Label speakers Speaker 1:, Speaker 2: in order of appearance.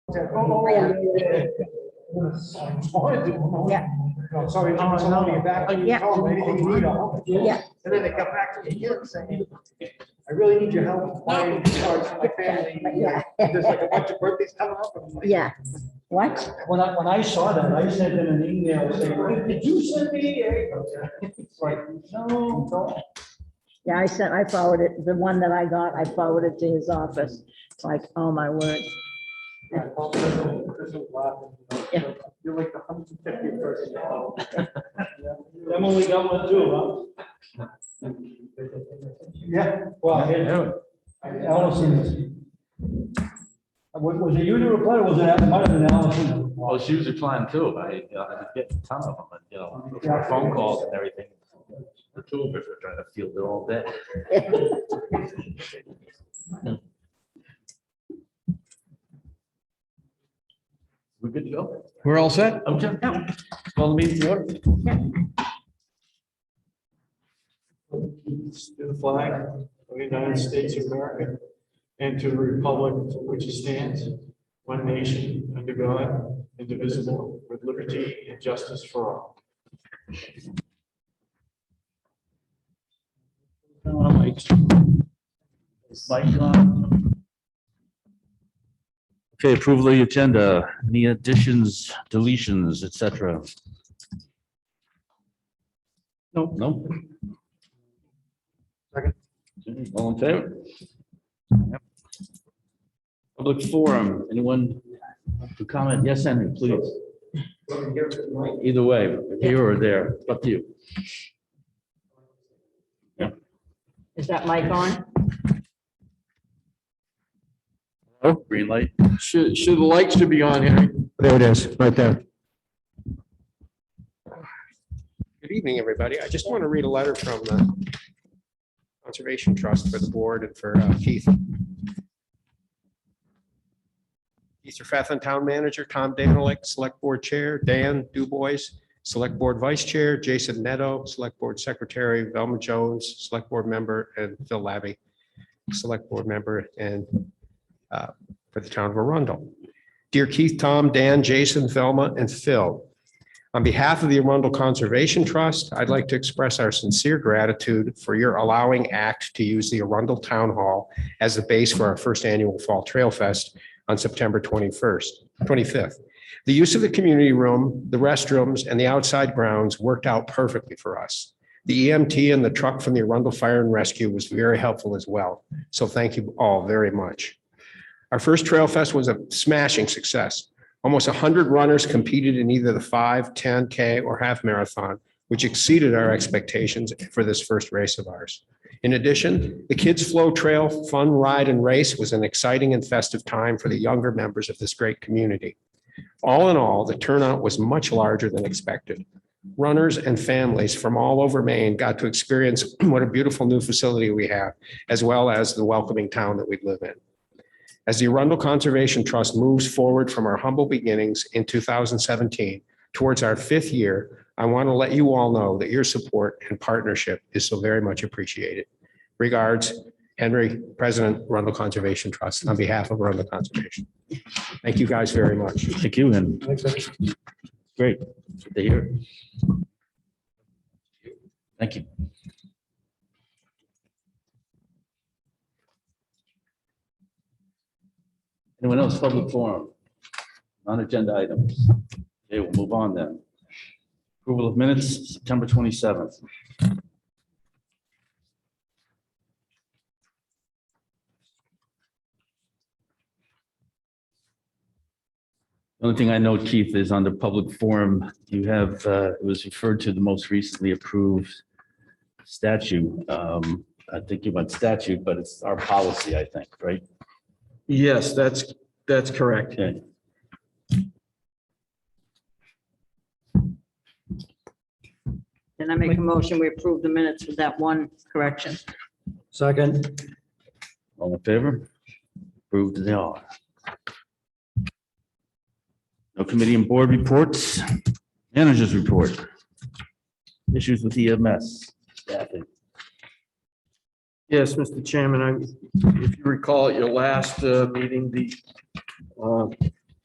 Speaker 1: Oh, yeah, yeah,
Speaker 2: Yeah.
Speaker 1: No, sorry, I'm sorry, you're back.
Speaker 2: Yeah.
Speaker 1: Tell them anything you need, I'll help you.
Speaker 2: Yeah.
Speaker 1: And then they come back to me here and say, I really need your help buying cards for my family.
Speaker 2: Yeah.
Speaker 1: There's like a bunch of birthdays coming up. and I'm like,
Speaker 2: Yeah, what?
Speaker 3: When I, when I saw that, I sent them an email saying, "Wait, did you send me? a-" It's like, no, no.
Speaker 2: Yeah, I sent, I forwarded, the one that I got, I forwarded to his office. It's like, oh my word. Yeah.
Speaker 1: You're like the hundred fifty person.
Speaker 3: Them only got one too, huh? Yeah, well, here- Allison. Was, Uh, was it you to reply, or was it, Al- might have been Allison?
Speaker 4: Well, she was replying too. I, you know, I was getting a ton of them, and, you know, phone calls and everything. The two of us were trying to field it all day. We good to go?
Speaker 5: We're all set?
Speaker 4: Okay. Call the meeting to order.
Speaker 6: to the flag of the United States of America and to the republic for which it stands, one nation, under God, indivisible, with liberty and justice for all.
Speaker 4: Okay, approval of the agenda, any additions, deletions, et cetera? No. No? Second. All in favor? Yep. Public forum, anyone to comment? Yes, Henry, please. Either way, here or there, it's up to you.
Speaker 2: Is that mic on?
Speaker 4: Oh, green light.
Speaker 6: Should, should, the light should be on, Henry.
Speaker 5: There it is, right there.
Speaker 7: Good evening, everybody. I just want to read a letter from the Conservation Trust for the board and for uh, Keith. Keith Fathan, Town Manager, Tom Danilek, Select Board Chair, Dan Dubois, Select Board Vice Chair, Jason Neto, Select Board Secretary, Velma Jones, Select Board Member, and Phil Labby, Select Board Member, and uh, for the town of Arundel. Dear Keith, Tom, Dan, Jason, Velma, and Phil, on behalf of the Arundel Conservation Trust, I'd like to express our sincere gratitude for your allowing ACT to use the Arundel Town Hall as the base for our first annual Fall Trail Fest on September 21st, 25th. The use of the community room, the restrooms, and the outside grounds worked out perfectly for us. The EMT and the truck from the Arundel Fire and Rescue was very helpful as well. So thank you all very much. Our first Trail Fest was a smashing success. Almost 100 runners competed in either the 5, 10K, or half marathon, which exceeded our expectations for this first race of ours. In addition, the Kids Flow Trail Fun Ride and Race was an exciting and festive time for the younger members of this great community. All in all, the turnout was much larger than expected. Runners and families from all over Maine got to experience what a beautiful new facility we have, as well as the welcoming town that we live in. As the Arundel Conservation Trust moves forward from our humble beginnings in 2017 towards our fifth year, I want to let you all know that your support and partnership is so very much appreciated. Regards, Henry, President, Arundel Conservation Trust, on behalf of Arundel Conservation. Thank you guys very much.
Speaker 4: Thank you, and great to hear. Thank you. Anyone else, public forum? Non-agenda items. Okay, we'll move on then. Approval of minutes, September 27th. The only thing I know, Keith, is on the public forum, you have, uh, it was referred to the most recently approved statute. Um, I think you meant statute, but it's our policy, I think, right?
Speaker 6: Yes, that's, that's correct.
Speaker 4: Okay.
Speaker 2: And I make a motion, we approve the minutes with that one correction.
Speaker 3: Second,
Speaker 4: All in favor? Approved as they are. No committee and board reports, managers report. Issues with EMS, staffing.
Speaker 6: Yes, Mr. Chairman, I, if you recall at your last uh, meeting, the uh,